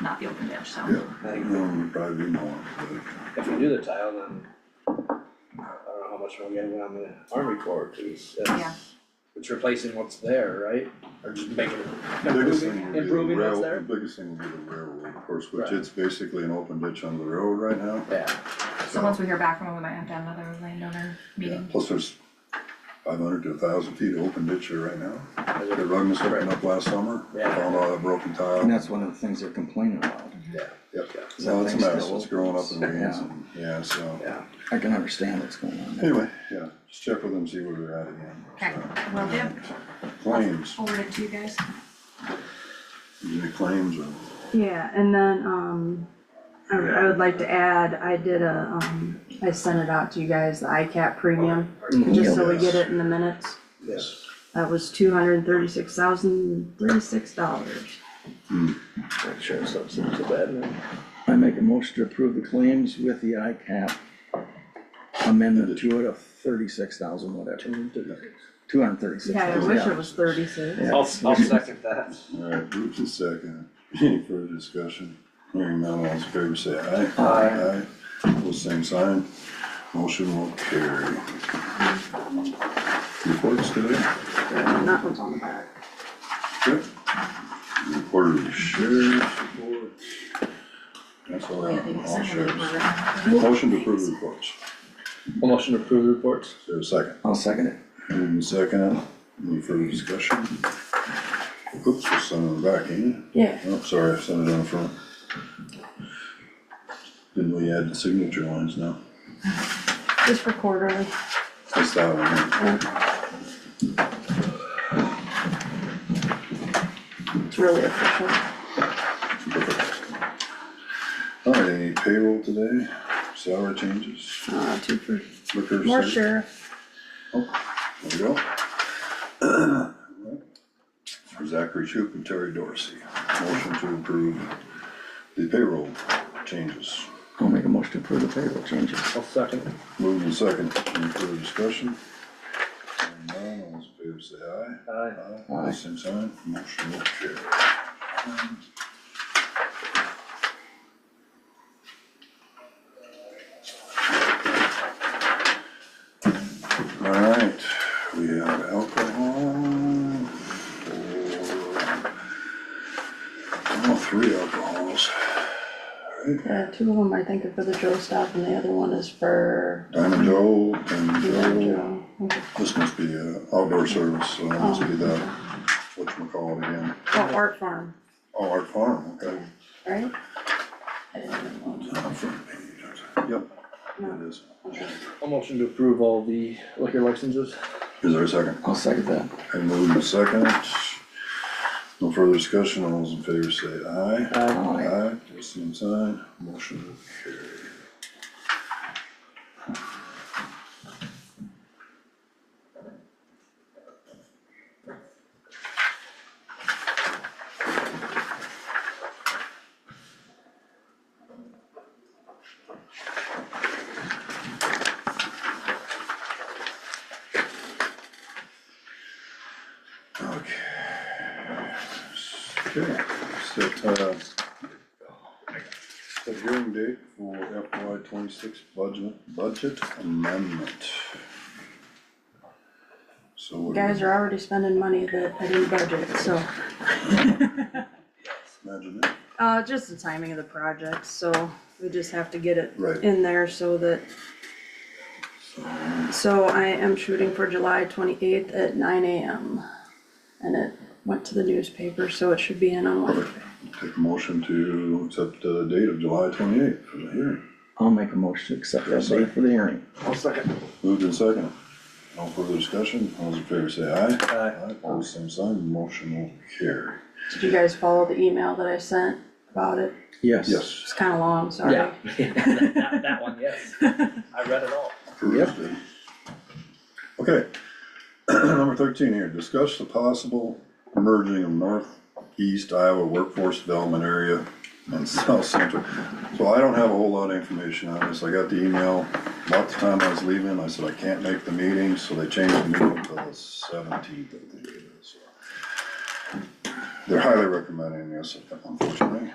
not the open ditch, Yeah, so. no, it'd probably be more, but, If we do the tile, then I don't know how much we're getting on the Army Corps piece, Yeah. it's, it's replacing what's there, right? Or just making, the biggest thing would improving, be the improving what's rail, the there? biggest thing would be the railroad, of course, which Right. it's basically an open ditch on the road right now. Yeah, So once we hear back from them, we might have to have another landowner Yeah, meeting. plus there's five hundred to thousand feet of open ditch here right now. I They would- rug this open up last summer, Yeah. found all that broken tile. And that's one of the things they're complaining about. yeah, Yep. is Well, that it's a things mess, still it's growing up in open. weeds Yeah, and, yeah, so, yeah, I can understand what's going on there. anyway, yeah, just check with them, see where they're at again. Okay, so. will do. Claims, Forward it to you guys. any claims or? Yeah, and then, um, I, I would like to add, I did a, um, I sent it out to you guys, the ICAP premium, just so we get it in the minutes. yes, That was two hundred and thirty-six thousand, thirty-six dollars. sure, so it's not so bad, then. I make a motion to approve the claims with the ICAP amendment to it of thirty-six thousand, whatever. Two hundred thirty-six Yeah, I thousand, wish yeah. it was thirty-six. Yeah. I'll, I'll second that. All right, group is second. Any further discussion? Hearing none, all in favor say aye. Aye. Aye. Pose same sign. Motion will carry. Reports today? And that one's on the back. Good. Reporter to sheriff's report. That's all I have on all sheriffs. Motion to approve reports. Motion to approve the reports? Is there a second? I'll second it. Moving second. Any further discussion? Oops, I sent it back, ain't it? Yeah. Oh, sorry, I sent it on front. Didn't we add the signature lines now? Just for quarterly. That's that one, huh? It's really official. All right, any payroll today, salary changes, Uh, two for, liquor. more sale? sheriff. There we go. For Zachary Shoup and Terry Dorsey, motion to approve the payroll changes. I'll make a motion to approve the payroll changes. I'll second. Moving second, any further discussion? Hearing none, all those in favor say aye. Aye. Aye, same sign, motion will carry. All right, we have alcohol. for- Oh, three alcohols, Yeah, two of them I think are for the Joe stop and the other one is for, Diamond Joe and Joe, Joe. this must be uh, outdoor service, so that must be that, whatchamacallit again. Oh, Art Farm, Oh, Art Farm, okay. right? I didn't know. Uh, front page. Yep, No. it is. I'll motion to approve all the liquor licenses. Is there a second? I'll second that. I move in second. No further discussion, all those in favor say aye. Aye. Aye, pose same sign, motion will carry. Okay. Okay, set, uh, set hearing date for FY twenty-six budget, budget amendment. So. what do you Guys are already spending money that I didn't budget, so. Imagine it. Uh, just the timing of the project, so we just have to get it Right. in there so that. So I am shooting for July twenty-eighth at nine AM. And it went to the newspaper, so it should be in on Wednesday. Take a motion to accept the date of July twenty-eighth for the hearing. I'll make a motion to accept that date for the hearing. I'll second. Moved and second. No further discussion. All those in favor say aye. Aye. Aye, pose same sign, motion will carry. Did you guys follow the email that I sent about it? Yes. Yes. It's kinda long, sorry. Yeah, that, that one, yes. I read it all. Approved. Okay. Number thirteen here, discuss the possible merging of northeast Iowa workforce development area and south central. So I don't have a whole lot of information on this. I got the email, about the time I was leaving, I said I can't make the meeting, so they changed the meeting until the seventeenth, I think it is. They're highly recommending this, unfortunately.